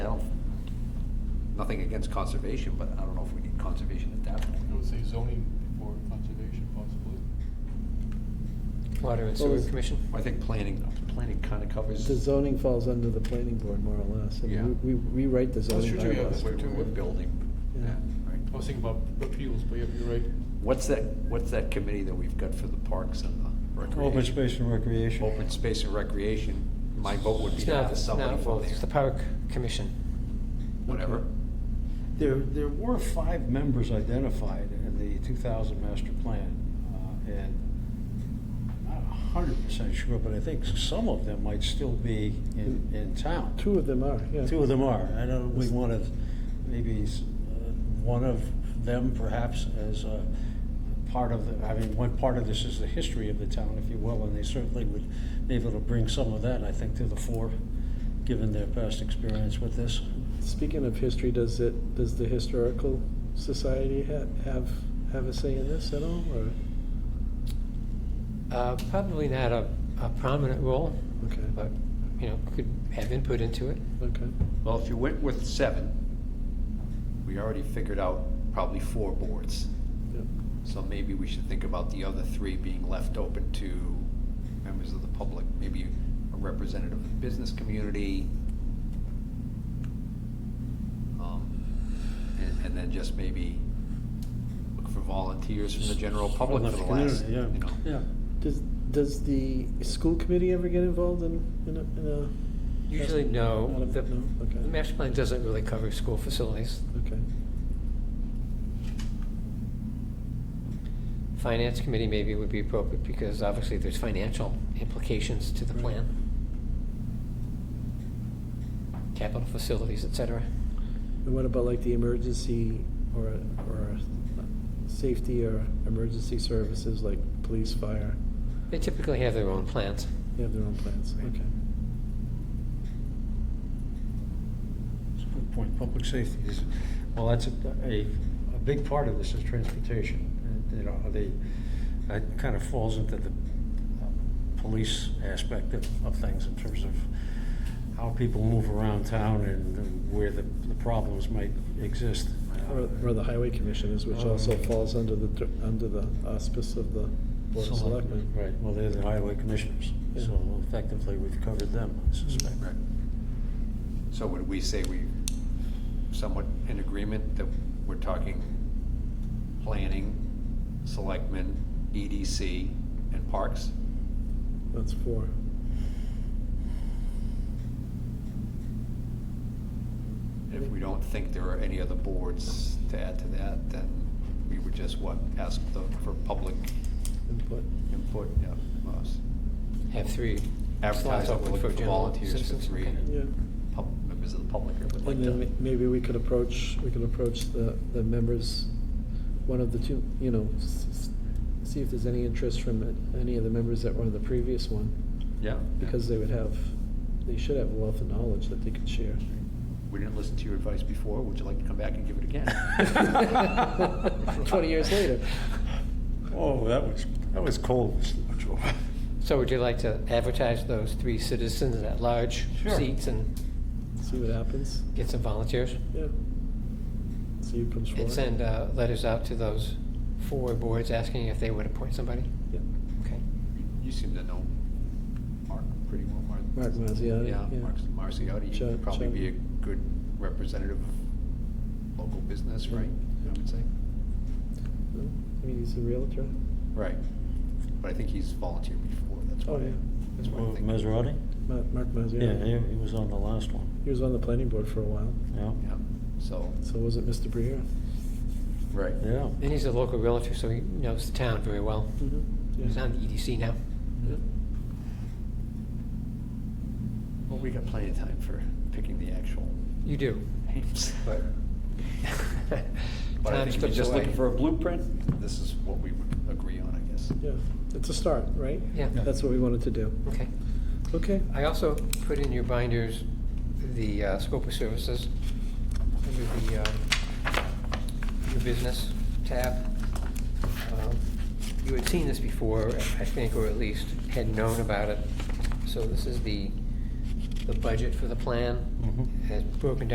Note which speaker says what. Speaker 1: nothing against conservation, but I don't know if we need conservation at that point.
Speaker 2: I would say zoning before conservation possibly.
Speaker 3: Water and
Speaker 4: Well,
Speaker 3: Sewer
Speaker 4: it's-
Speaker 3: Commission?
Speaker 1: I think planning, planning kind of covers.
Speaker 4: The zoning falls under the planning board more or less. and
Speaker 1: Yeah.
Speaker 4: We, we rewrite the zoning
Speaker 2: true, yeah,
Speaker 4: bylaws.
Speaker 2: that's
Speaker 1: We're,
Speaker 2: true.
Speaker 1: we're building.
Speaker 4: Yeah.
Speaker 1: right.
Speaker 2: I was thinking about appeals, but yeah, you're right.
Speaker 1: What's that, what's that committee that we've got for the parks and the recreation?
Speaker 5: Open space and recreation.
Speaker 1: Open space and recreation, my vote would be
Speaker 3: It's
Speaker 1: to
Speaker 3: not,
Speaker 1: have
Speaker 3: it's not,
Speaker 1: somebody from
Speaker 3: well, it's the
Speaker 1: there,
Speaker 3: Park Commission.
Speaker 1: whatever.
Speaker 5: There, there were five members identified in the 2000 master plan, uh, and I'm not hundred percent sure, but I think some of them might still be in, in town.
Speaker 4: Two of them are, yeah.
Speaker 5: Two of them are. I know we wanted maybe s- uh, one of them perhaps as a part of the, I mean, one part of this is the history of the town, if you will, and they certainly would be able to bring some of that, I think, to the fore, given their past experience with this.
Speaker 4: Speaking of history, does it, does the historical society ha- have, have a say in this at all, or,
Speaker 3: Uh, Probably not a a prominent role,
Speaker 4: okay,
Speaker 3: but, you know, could have input into it.
Speaker 4: okay.
Speaker 1: Well, if you went with seven, we already figured out probably four boards.
Speaker 4: yep.
Speaker 1: So maybe we should think about the other three being left open to members of the public, maybe a representative of the business community. Um, And, and then just maybe look for volunteers from the general public for the last, you
Speaker 5: community,
Speaker 1: know.
Speaker 5: Yeah, yeah.
Speaker 4: Does, does the school committee ever get involved in, in a, in
Speaker 3: Usually, no.
Speaker 4: Not a-
Speaker 3: The
Speaker 4: no, okay.
Speaker 3: the master plan doesn't really cover school facilities.
Speaker 4: a, okay,
Speaker 3: Finance Committee maybe would be appropriate, because obviously there's financial implications to the
Speaker 4: Right.
Speaker 3: plan. Capital facilities, et cetera.
Speaker 4: and what about like the emergency or, or safety or emergency services like police, fire?
Speaker 3: They typically have their own plans.
Speaker 4: They have their own plans,
Speaker 3: Right.
Speaker 4: okay.
Speaker 5: It's a good point. Public safety is, well, that's a, a, a big part of this is transportation. And, You know, they, that kind of falls into the uh, police aspect of, of things in terms of how people move around town and where the, the problems might exist. Uh,
Speaker 4: Or, or the highway commissioners, which also
Speaker 5: Um,
Speaker 4: falls under the, dir- under the auspice of the board of selectmen.
Speaker 5: Right, well, they're the highway commissioners, so
Speaker 4: Yeah.
Speaker 5: effectively we've covered them, I suspect.
Speaker 1: Right. So would we say we somewhat in agreement that we're talking planning, selectmen, EDC, and parks?
Speaker 4: That's four.
Speaker 1: If we don't think there are any other boards to add to that, then we would just, what, ask the, for public
Speaker 4: Input.
Speaker 1: input, yeah, from us.
Speaker 3: Have three
Speaker 1: Advertise
Speaker 3: slots
Speaker 1: that we're
Speaker 3: open
Speaker 1: looking
Speaker 3: for
Speaker 1: for
Speaker 3: general
Speaker 1: volunteers for
Speaker 3: citizens,
Speaker 1: three,
Speaker 3: okay.
Speaker 4: Yeah.
Speaker 1: pub- members of the public who would like
Speaker 4: And then
Speaker 1: to.
Speaker 4: ma- maybe we could approach, we could approach the, the members, one of the two, you know, s- s- see if there's any interest from it- any of the members that were in the previous one,
Speaker 1: Yeah.
Speaker 4: because they would have, they should have a wealth of knowledge that they could share.
Speaker 1: We didn't listen to your advice before, would you like to come back and give it again?
Speaker 4: Twenty years later.
Speaker 5: Oh, that was, that was cold, Mr. Joe.
Speaker 3: So would you like to advertise those three citizens at large
Speaker 5: Sure.
Speaker 3: seats and
Speaker 4: See what happens,
Speaker 3: get some volunteers?
Speaker 4: yeah. See who comes forward.
Speaker 3: And send uh, letters out to those four boards asking if they would appoint somebody?
Speaker 4: Yeah.
Speaker 3: Okay.
Speaker 1: You seem to know Mark pretty well, Mark.
Speaker 4: Mark Mazziotti,
Speaker 1: Yeah,
Speaker 4: yeah.
Speaker 1: Mark Marciotti,
Speaker 4: Chuck-
Speaker 1: you'd probably
Speaker 4: Chuck.
Speaker 1: be a good representative of local business, right, I would say?
Speaker 4: No? I mean, he's a realtor.
Speaker 1: Right, but I think he's volunteered before, that's
Speaker 4: Oh,
Speaker 1: why,
Speaker 4: yeah.
Speaker 1: that's why I think.
Speaker 5: Maserati?
Speaker 4: Ma- Mark
Speaker 5: Yeah, he,
Speaker 4: Mazziotti.
Speaker 5: he was on the last one,
Speaker 4: He was on the planning board for a while,
Speaker 5: yeah.
Speaker 1: Yeah, so,
Speaker 4: so was it Mr. Brier?
Speaker 1: right,
Speaker 5: Yeah.
Speaker 3: And he's a local realtor, so he knows the town very well.
Speaker 4: Mm-hmm.
Speaker 3: He's on the EDC now.
Speaker 1: well, we got plenty of time for picking the actual
Speaker 3: You do.
Speaker 1: names, but. But I
Speaker 3: Time
Speaker 1: think if you're
Speaker 3: slips
Speaker 1: just
Speaker 3: away.
Speaker 1: looking for a blueprint, this is what we would agree on, I guess.
Speaker 4: Yeah, it's a start, right?
Speaker 3: Yeah,
Speaker 5: Yeah.
Speaker 4: That's what we wanted to do.
Speaker 3: okay.
Speaker 4: Okay,
Speaker 3: I also put in your binders the uh, scope of services under the um, new business tab. Um, You had seen this before, I think, or at least had known about it. So this is the, the budget for the plan.
Speaker 5: Mhm.
Speaker 3: It's broken down